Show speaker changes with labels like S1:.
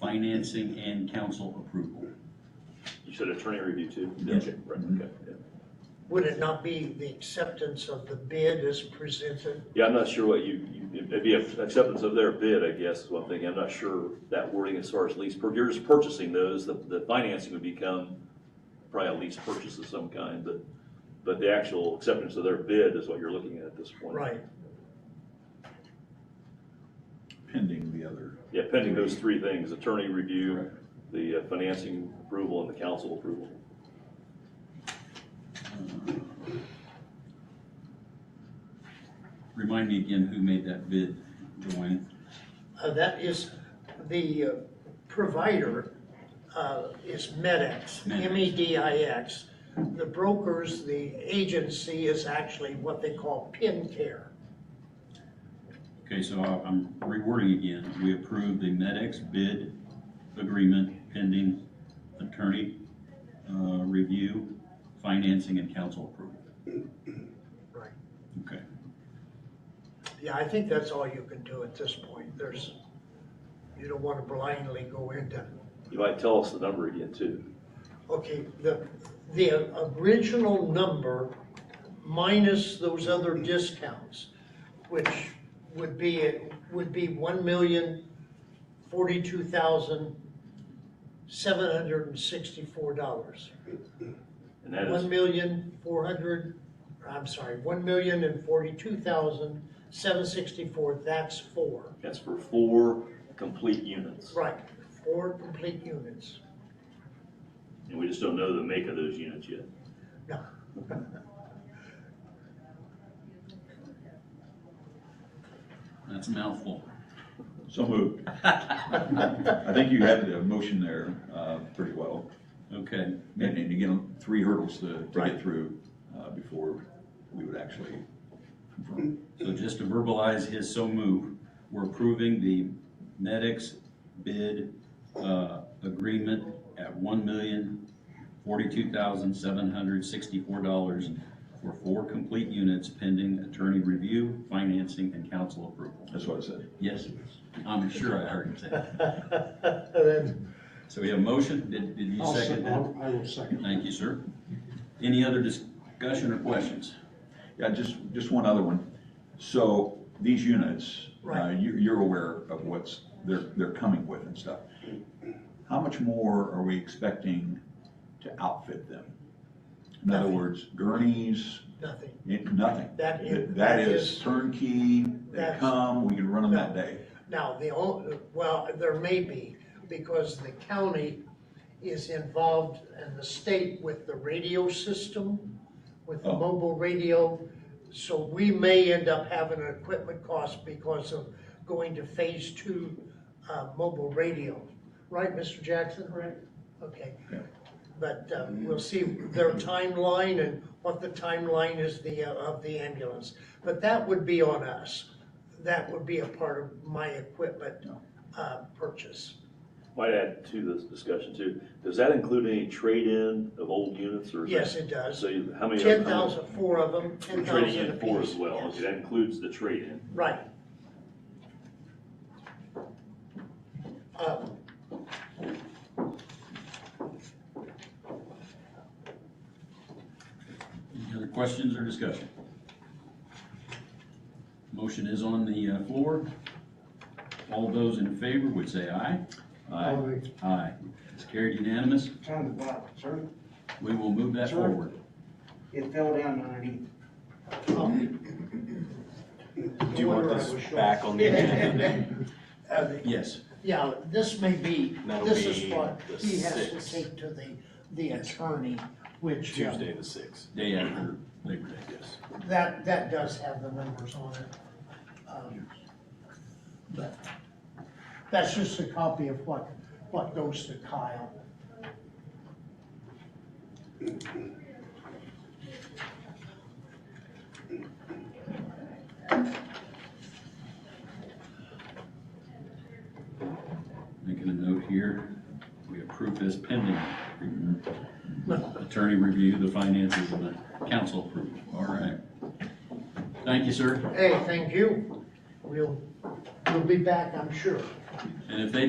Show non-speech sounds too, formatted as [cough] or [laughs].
S1: financing and council approval.
S2: You said attorney review too?
S1: Yes.
S2: Okay, Right, okay. yeah.
S3: Would it not be the acceptance of the bid as presented?
S2: Yeah, I'm not sure what you, you- it'd be acceptance of their bid, I guess, is one thing. I'm not sure that wording as far as lease, pur- you're just purchasing those, the, the financing would become probably a lease purchase of some kind, but, but the actual acceptance of their bid is what you're looking at at this point.
S3: Right,
S4: pending the other.
S2: Yeah, pending those three things, attorney review,
S4: Correct.
S2: the uh, financing approval, and the council approval.
S1: Remind me again who made that bid, Joanne?
S3: Uh, that is the uh, provider, uh, is E MedX,
S1: Medix.
S3: M-E-D-I-X. The brokers, the agency is actually what they call PIN Care.
S1: Okay, so I- I'm rewording again. We approve the MedX bid agreement pending attorney uh, review, financing, and council approval.
S3: Right.
S1: Okay.
S3: Yeah, I think that's all you can do at this point. There's, you don't want to blindly go into,
S2: You might tell us the number again too.
S3: okay, the, the original number minus those other discounts, which would be, would be one million forty-two thousand seven hundred and sixty-four dollars.
S2: And that
S3: One
S2: is,
S3: million four hundred, I'm sorry, one million and forty-two thousand seven sixty-four, that's four.
S2: that's for four complete units.
S3: Right, four complete units.
S2: And we just don't know the make of those units yet.
S3: No.
S1: That's a mouthful.
S4: So moved. I think you had the motion there uh, pretty well.
S1: Okay,
S4: And and again, three hurdles to to
S2: Right.
S4: get through uh, before we would actually confirm.
S1: so just to verbalize his so move, we're approving the MedX bid uh, agreement at one million forty-two thousand seven hundred sixty-four dollars for four complete units pending attorney review, financing, and council approval.
S4: That's what I said.
S1: Yes, I'm sure I heard him say. that.
S3: Then,
S1: So we have a motion, did, did you
S5: I'll
S1: second
S5: sec-
S1: that?
S5: I'll- I will second.
S1: Thank you, sir. Any other discussion or questions?
S4: Yeah, just, just one other one. So these units, uh,
S3: Right.
S4: you- you're aware of what's, they're, they're coming with and stuff. How much more are we expecting to outfit them? In other
S3: Nothing.
S4: words, gurneys,
S3: Nothing.
S4: It, nothing.
S3: That is-
S4: Th-
S3: that
S4: That is
S3: is-
S4: turnkey, they
S3: That's-
S4: come, we can run them that day.
S3: Now, the only, well, there may be, because the county is involved and the state with the radio system, with the
S4: Oh.
S3: mobile radio. So we may end up having an equipment cost because of going to phase two, uh, mobile radio. Right, Mr. Jackson? Right. Okay.
S4: Yeah.
S3: But, uh, we'll see their timeline and what the timeline is the, uh, of the ambulance. But that would be on us. That would be a part of my equipment, uh, purchase.
S2: Might add to this discussion too, does that include any trade-in of old units or? is
S3: Yes,
S2: that-
S3: it does.
S2: So you- how many? are-
S3: Ten thousand, four of them,
S2: We're
S3: ten
S2: trading
S3: thousand
S2: in four as
S3: apiece.
S2: well,
S3: yes.
S2: okay, that includes the trade-in.
S3: Right. Um,
S1: Any other questions or discussion? Motion is on the uh, floor. All those in favor would say aye.
S5: Aye.
S1: Aye. It's carried unanimous.
S5: Time to buy, sir.
S1: We will move that
S5: Sure.
S1: forward.
S5: It fell down underneath.
S3: um,
S6: Do you want
S5: Wonder I
S6: this
S5: was short.
S6: back on the agenda?
S3: uh,
S1: Yes,
S3: [laughs] Yeah, this may be,
S6: That'll
S3: this is
S6: be
S3: what
S6: the
S3: he has to
S6: sixth.
S3: take to the, the attorney, which, uh,
S6: Tuesday the sixth,
S1: day after Labor Day.
S6: yes.
S3: that, that does have the numbers on it. Um, But That's just a copy of what, what goes to Kyle.
S1: Making a note here, we approve this pending attorney review, the finances, and the council approval. All right. Thank you, sir.
S3: Hey, thank you. We'll, we'll be back, I'm sure.
S1: And if they